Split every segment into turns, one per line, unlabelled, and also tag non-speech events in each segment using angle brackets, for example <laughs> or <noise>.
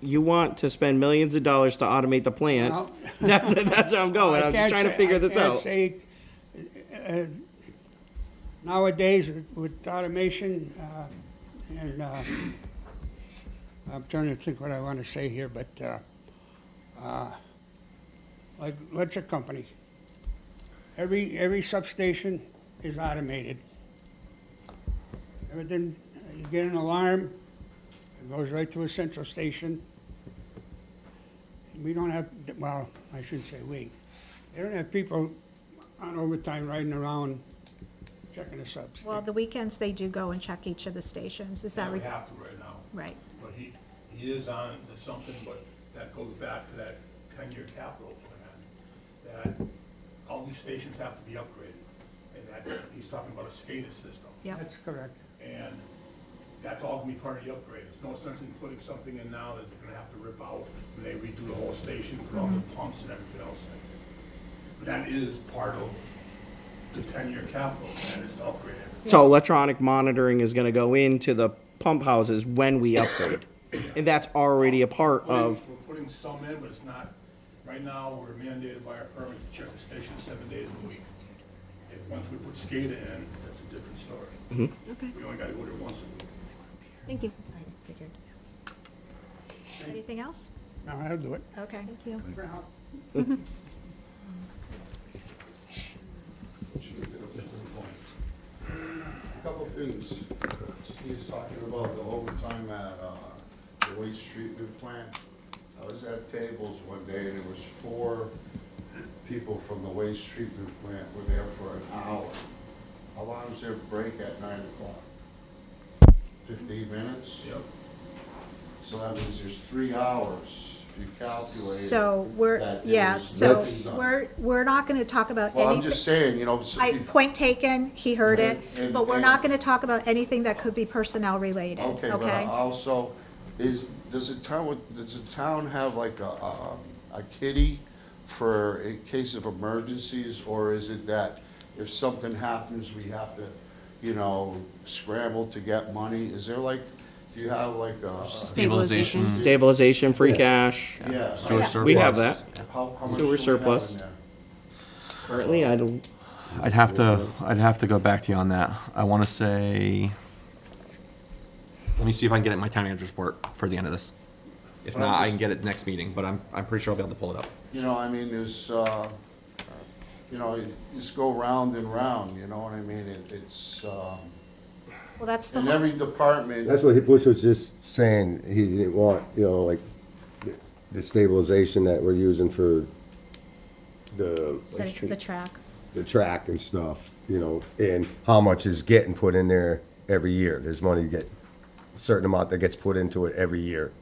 you want to spend millions of dollars to automate the plant.
Well-
<laughs> That's, that's where I'm going.
I
I'm just
can't
trying to
say-
figure
I
this
can't
out.
say, uh, Nowadays, with- with automation, uh, and, uh, I'm trying to think what I want to say here, but, uh, uh, like electric company, every, every substation is automated. Everything, you get an alarm, it goes right to a central station. We don't have, well, I shouldn't say we, they don't have people on overtime riding around checking the subs.
Well, the weekends, they do go and check each of the stations, is that
Yeah, we
right?
have to right now.
Right,
But he, he is on to something, but that goes back to that ten-year capital plan, that all these stations have to be upgraded. And that, he's talking about a SCADA system.
yeah,
That's correct.
And that's all gonna be part of the upgrade. There's no sense in putting something in now that they're gonna have to rip out when they redo the whole station, put all the pumps and everything else in. But that is part of the ten-year capital plan, is to upgrade everything.
So electronic monitoring is gonna go into the pump houses when we upgrade. And that's already a part
Putting-
of,
We're putting some in, but it's not, right now, we're mandated by our permit to check the station seven days a week. If, once we put SCADA in, that's a different story.
okay,
We only gotta go there once a week.
Thank you.
I figured. Anything else?
No, I'll do it.
Okay.
Thank you.
Couple things. Steve's talking about the overtime at, uh, the waste treatment plant. I was at tables one day and there was four people from the waste treatment plant were there for an hour. How long is their break at nine o'clock? Fifteen minutes?
Yep.
So that means there's three hours if you calculate. it.
So we're,
That
yeah,
is-
so
Let's-
we're, we're not gonna talk about
Well, I'm just
anything.
saying, you know, so
I,
you-
point taken, he heard it,
And-
but we're not
and-
gonna talk about anything that could be personnel related,
Okay, but uh,
okay?
also, is, does the town, does the town have like a, um, a kitty for in case of emergencies? Or is it that if something happens, we have to, you know, scramble to get money? Is there like, do you have like a?
Stabilization.
stabilization, free cash.
Yeah.
Sewer
How-
surplus.
We have that.
How, how much do
Sewer
we have
surplus.
in there?
Currently, I don't,
I'd have to, I'd have to go back to you on that. I want to say, let me see if I can get it in my town manager's report for the end of this. If
Well,
not, I
just-
can get it next meeting, but I'm, I'm pretty sure I'll be able to pull it up.
You know, I mean, there's, uh, you know, you just go round and round, you know what I mean? It- It's, um,
Well, that's the
in
whole,
every department.
That's what Bush was just saying, he didn't want, you know, like, the stabilization that we're using for the,
set- the track.
the track and stuff, you know, and how much is getting put in there every year. There's money get, a certain amount that gets put into it every year.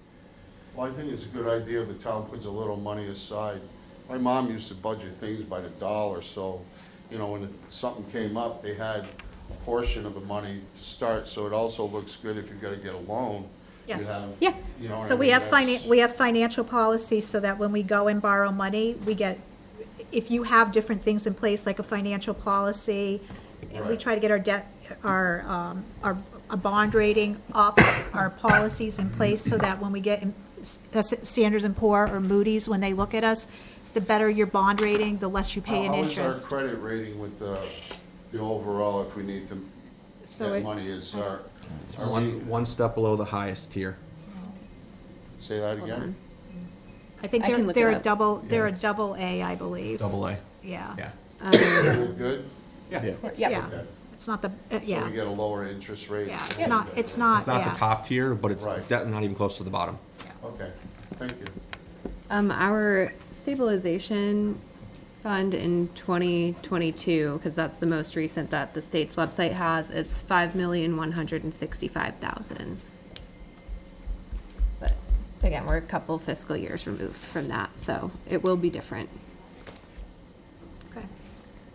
Well, I think it's a good idea the town puts a little money aside. My mom used to budget things by the dollar, so, you know, when something came up, they had a portion of the money to start, so it also looks good if you're gonna get a loan. You
Yes.
have-
Yeah.
You know what I
So we
mean?
have finan,
That's-
we have financial policies so that when we go and borrow money, we get, if you have different things in place, like a financial policy, and we
Right.
try to get our debt, our, um, our, a bond rating up, our policies in place so that when we get in- S- Sanders and Poor or Moody's, when they look at us, the better your bond rating, the less you pay in
How is our
interest.
credit rating with the, the overall, if we need to,
So
that
it- uh,
money is our,
It's
Are we-
one, one step below the highest tier.
say that
Hold
again?
on.
I think
I can
they're,
look it
they're a
up.
double, they're a double A, I believe.
Double A.
Yeah.
Yeah.
We're Good?
Yeah.
It's-
Yep.
Yeah, it's not the, uh,
So
yeah,
we get a lower interest rate?
yeah, it's not, it's not,
It's not
yeah.
the top tier, but it's
Right.
de- not even close to the bottom.
Okay, thank you.
Um, our stabilization fund in twenty twenty-two, because that's the most recent that the state's website has, is five million, one hundred and sixty-five thousand. But again, we're a couple fiscal years removed from that, so it will be different.
Okay.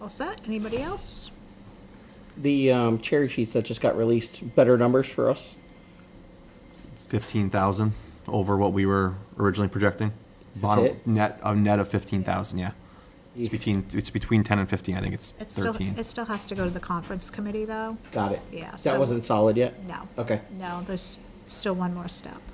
All set? Anybody else?
the um, cherry sheets that just got released, better numbers for us.
Fifteen thousand over what we were originally projecting. Bottom
it?
net, a net of fifteen thousand, yeah. It's between, it's between ten and fifteen. I think it's
It still,
thirteen.
it still has to go to the conference committee, though?
Got it.
Yeah,
That
so-
wasn't solid yet?
No.
Okay.
No, there's still one more step.